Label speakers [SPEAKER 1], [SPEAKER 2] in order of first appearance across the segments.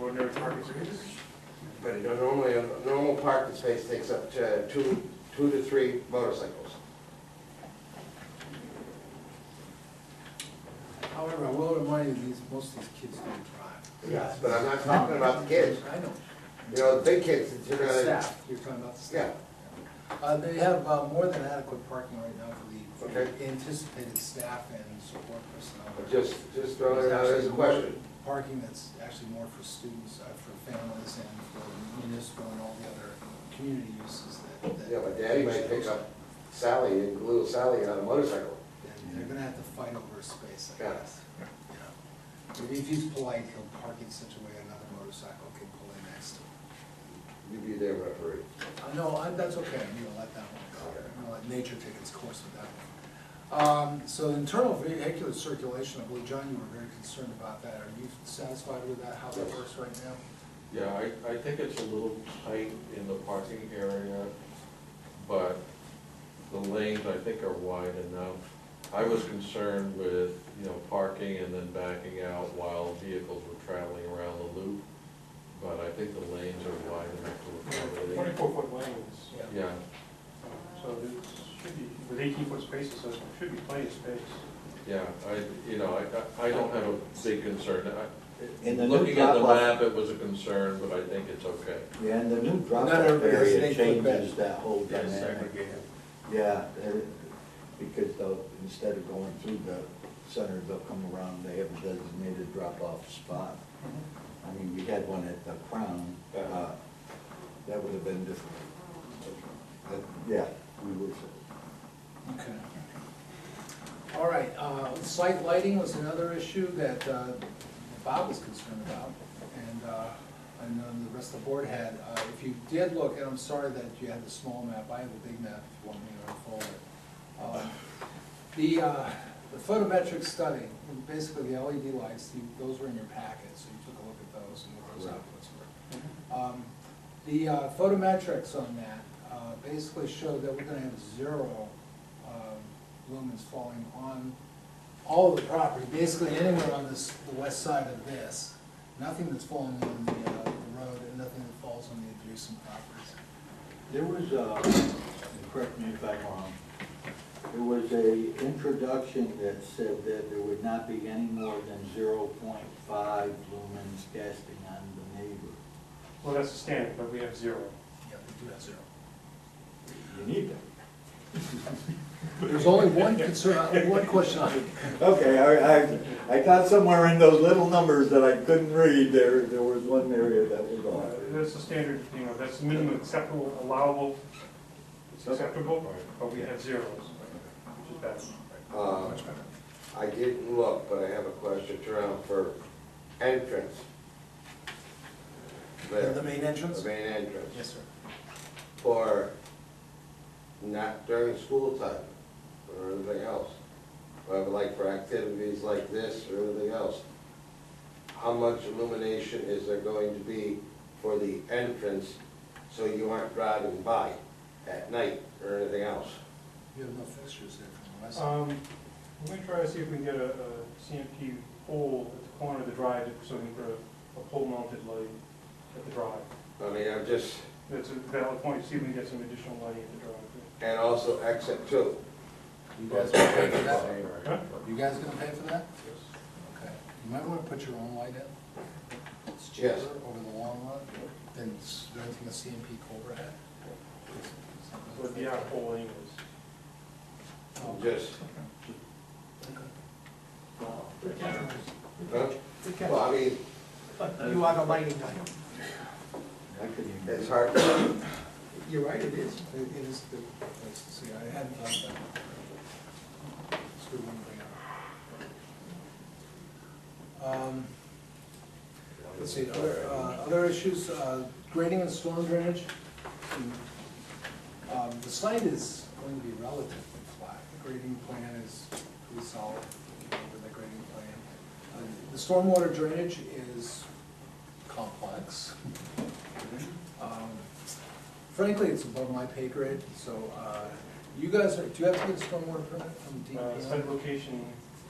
[SPEAKER 1] ordinary parking spaces.
[SPEAKER 2] But you know, normally, a normal parking space takes up to two, two to three motorcycles.
[SPEAKER 3] However, I will remind you, these, most of these kids don't drive.
[SPEAKER 2] Yes. But I'm not talking about the kids,
[SPEAKER 3] I know.
[SPEAKER 2] you know, the big kids, you
[SPEAKER 3] The
[SPEAKER 2] know,
[SPEAKER 3] staff, you're talking about the staff. Uh, they have uh, more than adequate parking right now for the
[SPEAKER 2] Okay.
[SPEAKER 3] anticipated staff and support personnel.
[SPEAKER 2] just, just throwing it out as a question.
[SPEAKER 3] Parking that's actually more for students, uh, for families and for municipal and all the other community uses that. that-
[SPEAKER 2] You know, my daddy might pick up Sally, and little Sally on a motorcycle.
[SPEAKER 3] And They're gonna have to fight over a space, I
[SPEAKER 2] Yeah.
[SPEAKER 3] guess. you know. Maybe if he's polite, he'll park in such a way another motorcycle can pull in next to him.
[SPEAKER 2] You'd be there referee.
[SPEAKER 3] Uh, No, I- that's okay, I'm gonna let that one go, I'm gonna let nature take its course with that one. Um, So internal vehicular circulation, I believe, John, you were very concerned about that, are you satisfied with that, how that works right now?
[SPEAKER 4] Yeah, I, I think it's a little tight in the parking area, but the lanes, I think, are wide enough. I was concerned with, you know, parking and then backing out while vehicles were traveling around the loop, but I think the lanes are wide enough to accommodate.
[SPEAKER 1] Twenty-four foot lanes,
[SPEAKER 4] Yeah,
[SPEAKER 1] so there should be, with eighteen foot spaces, so there should be plenty of space.
[SPEAKER 4] yeah, I, you know, I, I don't have a big concern. I-
[SPEAKER 5] In the new
[SPEAKER 4] Looking at the
[SPEAKER 5] drop-off-
[SPEAKER 4] map, it was a concern, but I think it's okay.
[SPEAKER 5] Yeah, and the new
[SPEAKER 3] Not
[SPEAKER 5] drop-off
[SPEAKER 3] everybody's
[SPEAKER 5] area
[SPEAKER 3] snake foot bed.
[SPEAKER 5] changes that whole dynamic. Yeah, they're- because they'll, instead of going through the center, they'll come around, they have a designated drop-off spot. I mean, we had one at the Crown, uh, that would have been different. But, Yeah, we would,
[SPEAKER 3] Okay. All right, uh, site lighting was another issue that uh, Bob was concerned about, and, uh, and then the rest of the board had. Uh, If you did look, and I'm sorry that you had the small map, I have a big map if you want me to unfold it. Um, The, uh, the photometric study, basically the LED lights, you- those were in your packet, so you took a look at those and what those
[SPEAKER 5] Right.
[SPEAKER 3] outputs were. Um, The uh, photometrics on that uh, basically show that we're gonna have zero um, lumens falling on all of the property, basically anywhere on this, the west side of this. Nothing that's falling on the uh, the road and nothing that falls on the adjacent properties.
[SPEAKER 5] There was a, and correct me if I'm wrong, there was a introduction that said that there would not be any more than zero point five lumens casting on the neighbor.
[SPEAKER 1] Well, that's the standard, but we have zero.
[SPEAKER 3] Yeah, they do have zero.
[SPEAKER 5] You need that.
[SPEAKER 3] There's only one concern, uh, one question on it.
[SPEAKER 5] Okay, I, I, I thought somewhere in those little numbers that I couldn't read, there, there was one area that was
[SPEAKER 1] Uh, That's the standard, you know, that's the minimum acceptable, allowable, it's acceptable, but we have zeros, which is bad.
[SPEAKER 2] Uh, I didn't look, but I have a question, Jerome, for entrance. There,
[SPEAKER 3] The main
[SPEAKER 2] the
[SPEAKER 3] entrance?
[SPEAKER 2] main entrance.
[SPEAKER 3] Yes, sir.
[SPEAKER 2] for not during school time or anything else. But like for activities like this or anything else, how much illumination is there going to be for the entrance so you aren't driving by at night or anything else?
[SPEAKER 3] You have no fixtures there from the west. side.
[SPEAKER 1] Um, I'm gonna try to see if we can get a, a CMP pole at the corner of the drive, so we can put a, a pole mounted light at the drive.
[SPEAKER 2] I mean, I'm just,
[SPEAKER 1] That's a valid point, see if we can get some additional lighting at the drive.
[SPEAKER 2] and also exit two.
[SPEAKER 3] You guys gonna pay for that?
[SPEAKER 1] Huh?
[SPEAKER 3] You guys gonna pay for that? Okay, you might wanna put your own light in. It's cheaper
[SPEAKER 2] Yes.
[SPEAKER 3] over the long run than s- renting a CMP Cobra head.
[SPEAKER 1] But the out pole anyways.
[SPEAKER 3] Oh,
[SPEAKER 2] Just,
[SPEAKER 3] Uh,
[SPEAKER 2] huh? well, I mean,
[SPEAKER 6] You are the lighting guy.
[SPEAKER 5] I couldn't even.
[SPEAKER 2] it's hard, to-
[SPEAKER 6] You're right, it is.
[SPEAKER 3] It it is the place to see, I hadn't thought about that. Screw one thing up. Um, Let's see, other, uh, other issues, uh, grading and storm drainage. Um, The site is going to be relatively flat. The grading plan is pretty solid, you know, with the grading plan. Uh, The stormwater drainage is complex. Um, Frankly, it's above my pay grade, so uh, you guys, are- do you have to get a stormwater permit from
[SPEAKER 1] Uh,
[SPEAKER 3] DEP?
[SPEAKER 1] site location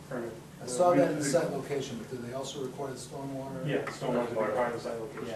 [SPEAKER 1] permit.
[SPEAKER 3] Uh,
[SPEAKER 1] I saw that in the site location, but do they also require the stormwater?
[SPEAKER 3] Yeah, stormwater to be part of the site location.